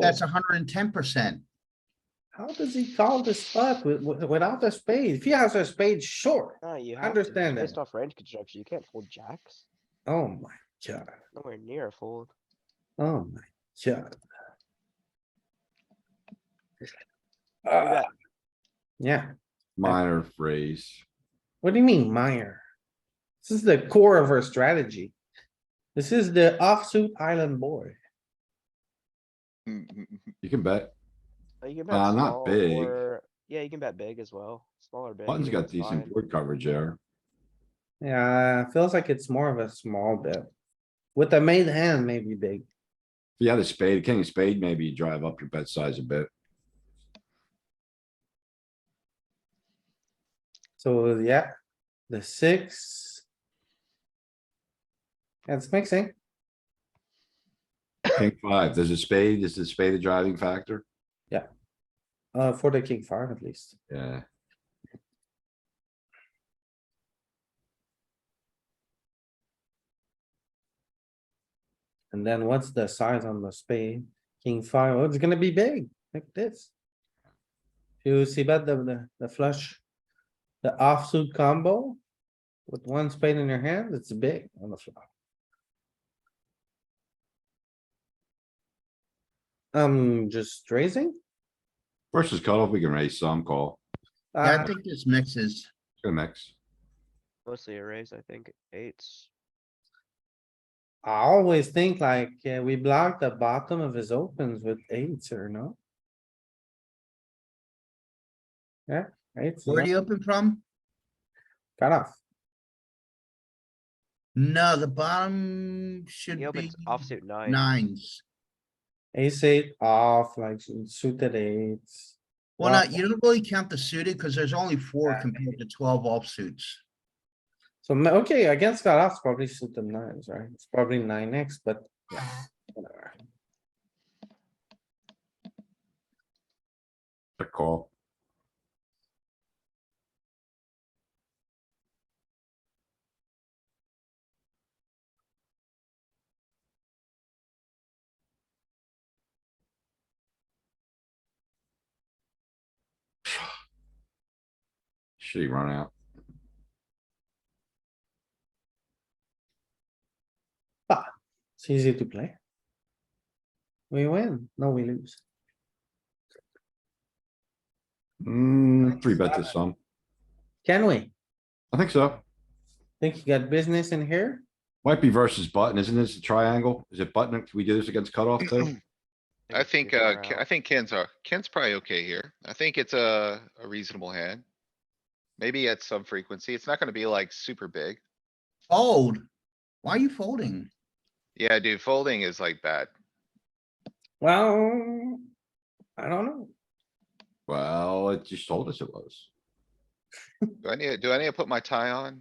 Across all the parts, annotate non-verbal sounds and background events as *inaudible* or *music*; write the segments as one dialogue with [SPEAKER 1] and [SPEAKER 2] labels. [SPEAKER 1] That's hundred and ten percent.
[SPEAKER 2] How does he call this spot with, with- without a spade? If he has a spade, sure.
[SPEAKER 3] No, you have to.
[SPEAKER 2] Understand
[SPEAKER 3] Based
[SPEAKER 2] that.
[SPEAKER 3] off range construction, you can't fold jacks.
[SPEAKER 2] Oh my god,
[SPEAKER 3] Nowhere near a fold.
[SPEAKER 2] oh my god.
[SPEAKER 3] You
[SPEAKER 2] Ah,
[SPEAKER 3] got
[SPEAKER 2] Yeah,
[SPEAKER 4] Minor phrase.
[SPEAKER 2] what do you mean minor? This is the core of our strategy. This is the offsuit island boy.
[SPEAKER 4] You can bet.
[SPEAKER 3] uh, you can bet
[SPEAKER 4] Uh, not
[SPEAKER 3] small
[SPEAKER 4] big.
[SPEAKER 3] or- Yeah, you can bet big as well. Smaller big.
[SPEAKER 4] Button's
[SPEAKER 3] either
[SPEAKER 4] got
[SPEAKER 3] one's fine.
[SPEAKER 4] decent board coverage there.
[SPEAKER 2] Yeah, feels like it's more of a small bet. With the main hand, maybe big.
[SPEAKER 4] If you had a spade, king of spade, maybe you drive up your bet size a bit.
[SPEAKER 2] So yeah, the six. That's mixing.
[SPEAKER 4] King five, there's a spade, is the spade a driving factor?
[SPEAKER 2] Uh, for the king five at least.
[SPEAKER 4] Yeah,
[SPEAKER 2] And then what's the size on the spade? King five, oh, it's gonna be big, like this. You see about the, the, the flush, the offsuit combo? With one spade in your hand, it's big on the flop. I'm Um, just raising.
[SPEAKER 4] versus cutoff, we can raise some call,
[SPEAKER 1] Yeah, I
[SPEAKER 2] Uh,
[SPEAKER 1] think this mixes.
[SPEAKER 4] it's gonna mix.
[SPEAKER 3] Mostly a raise, I think. Eights.
[SPEAKER 2] I always think like, yeah, we block the bottom of his opens with eights or no? Yeah, eights,
[SPEAKER 1] Where do
[SPEAKER 2] cut
[SPEAKER 1] you open from?
[SPEAKER 2] off.
[SPEAKER 1] No, the bottom should
[SPEAKER 3] He
[SPEAKER 1] be
[SPEAKER 3] opens offsuit nine.
[SPEAKER 1] nines.
[SPEAKER 2] Ace eight off, like suited eights.
[SPEAKER 1] Well,
[SPEAKER 2] Wow.
[SPEAKER 1] not, you don't really count the suited because there's only four
[SPEAKER 2] Yeah.
[SPEAKER 1] compared to twelve offsuits.
[SPEAKER 2] So, ma- okay, against cutoff, it's probably suited nines, right? It's probably nine X, but yeah, whatever.
[SPEAKER 4] The *sighs* call, shitty run out.
[SPEAKER 2] It's easy to play. We win, no, we lose.
[SPEAKER 4] Mm, three bet to
[SPEAKER 2] Seven.
[SPEAKER 4] some,
[SPEAKER 2] Can we?
[SPEAKER 4] I think so.
[SPEAKER 2] Think you got business in here?
[SPEAKER 4] Might be versus button, isn't this a triangle? Is it button? Can we do this against cutoff too?
[SPEAKER 5] I
[SPEAKER 3] it's too
[SPEAKER 5] think, uh,
[SPEAKER 3] far
[SPEAKER 5] Ken-
[SPEAKER 3] out.
[SPEAKER 5] I think Ken's, uh, Ken's probably okay here. I think it's a, a reasonable hand. Maybe at some frequency. It's not gonna be like super big.
[SPEAKER 1] Fold. Why are you folding?
[SPEAKER 5] Yeah, dude, folding is like bad.
[SPEAKER 2] Well, I don't know.
[SPEAKER 4] Well, it just told us it was.
[SPEAKER 5] Do I need, do I need to put my tie on?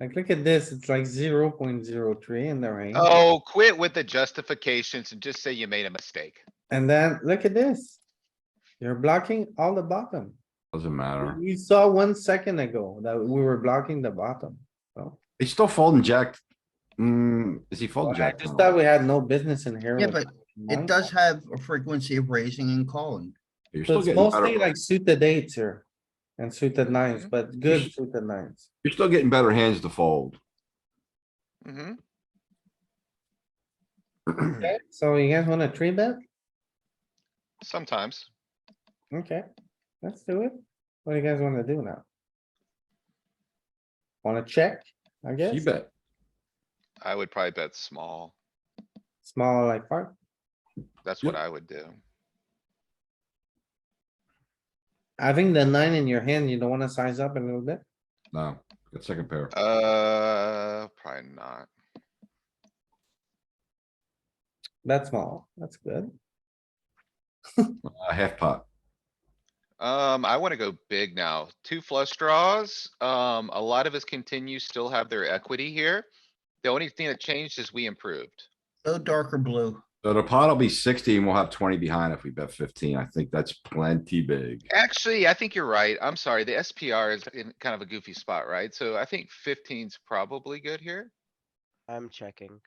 [SPEAKER 2] Like, look at this, it's like zero point zero three in the range.
[SPEAKER 5] Oh, quit with the justifications and just say you made a mistake.
[SPEAKER 2] And then, look at this. You're blocking all the bottom.
[SPEAKER 4] Doesn't matter.
[SPEAKER 2] We saw one second ago that we were blocking the bottom, so.
[SPEAKER 4] He's still folding jack. Mm, is he folding
[SPEAKER 2] I
[SPEAKER 4] jack?
[SPEAKER 2] just
[SPEAKER 4] nine
[SPEAKER 2] thought
[SPEAKER 4] off?
[SPEAKER 2] we had no business in here.
[SPEAKER 1] Yeah,
[SPEAKER 2] with
[SPEAKER 1] but
[SPEAKER 2] nine.
[SPEAKER 1] It does have a frequency of raising and calling.
[SPEAKER 4] You're
[SPEAKER 2] So
[SPEAKER 4] still
[SPEAKER 2] it's
[SPEAKER 4] getting
[SPEAKER 2] mostly
[SPEAKER 4] better,
[SPEAKER 2] like suited eights here and
[SPEAKER 1] Mm-hmm.
[SPEAKER 2] suited nines, but good
[SPEAKER 4] should-
[SPEAKER 2] suited nines.
[SPEAKER 4] you're still getting better hands to fold.
[SPEAKER 5] Mm-hmm.
[SPEAKER 2] Okay, so you guys wanna three bet?
[SPEAKER 5] Sometimes.
[SPEAKER 2] Okay, let's do it. What do you guys wanna do now? Wanna check, I
[SPEAKER 4] You
[SPEAKER 2] guess?
[SPEAKER 4] bet.
[SPEAKER 5] I would probably bet small.
[SPEAKER 2] Small like part.
[SPEAKER 5] That's
[SPEAKER 4] Yep.
[SPEAKER 5] what I would do.
[SPEAKER 2] Having the nine in your hand, you don't wanna size up a little bit?
[SPEAKER 4] No, got second pair.
[SPEAKER 5] Uh, probably not.
[SPEAKER 2] That's small, that's good.
[SPEAKER 4] A half pot.
[SPEAKER 5] Um, I wanna go big now. Two flush draws. Um, a lot of us continue still have their equity here. The only thing that changed is we improved.
[SPEAKER 1] Go darker blue.
[SPEAKER 4] So the pot will be sixty and we'll have twenty behind if we bet fifteen. I think that's plenty big.
[SPEAKER 5] Actually, I think you're right. I'm sorry. The SPR is in kind of a goofy spot, right? So I think fifteen's probably good here.
[SPEAKER 3] I'm checking.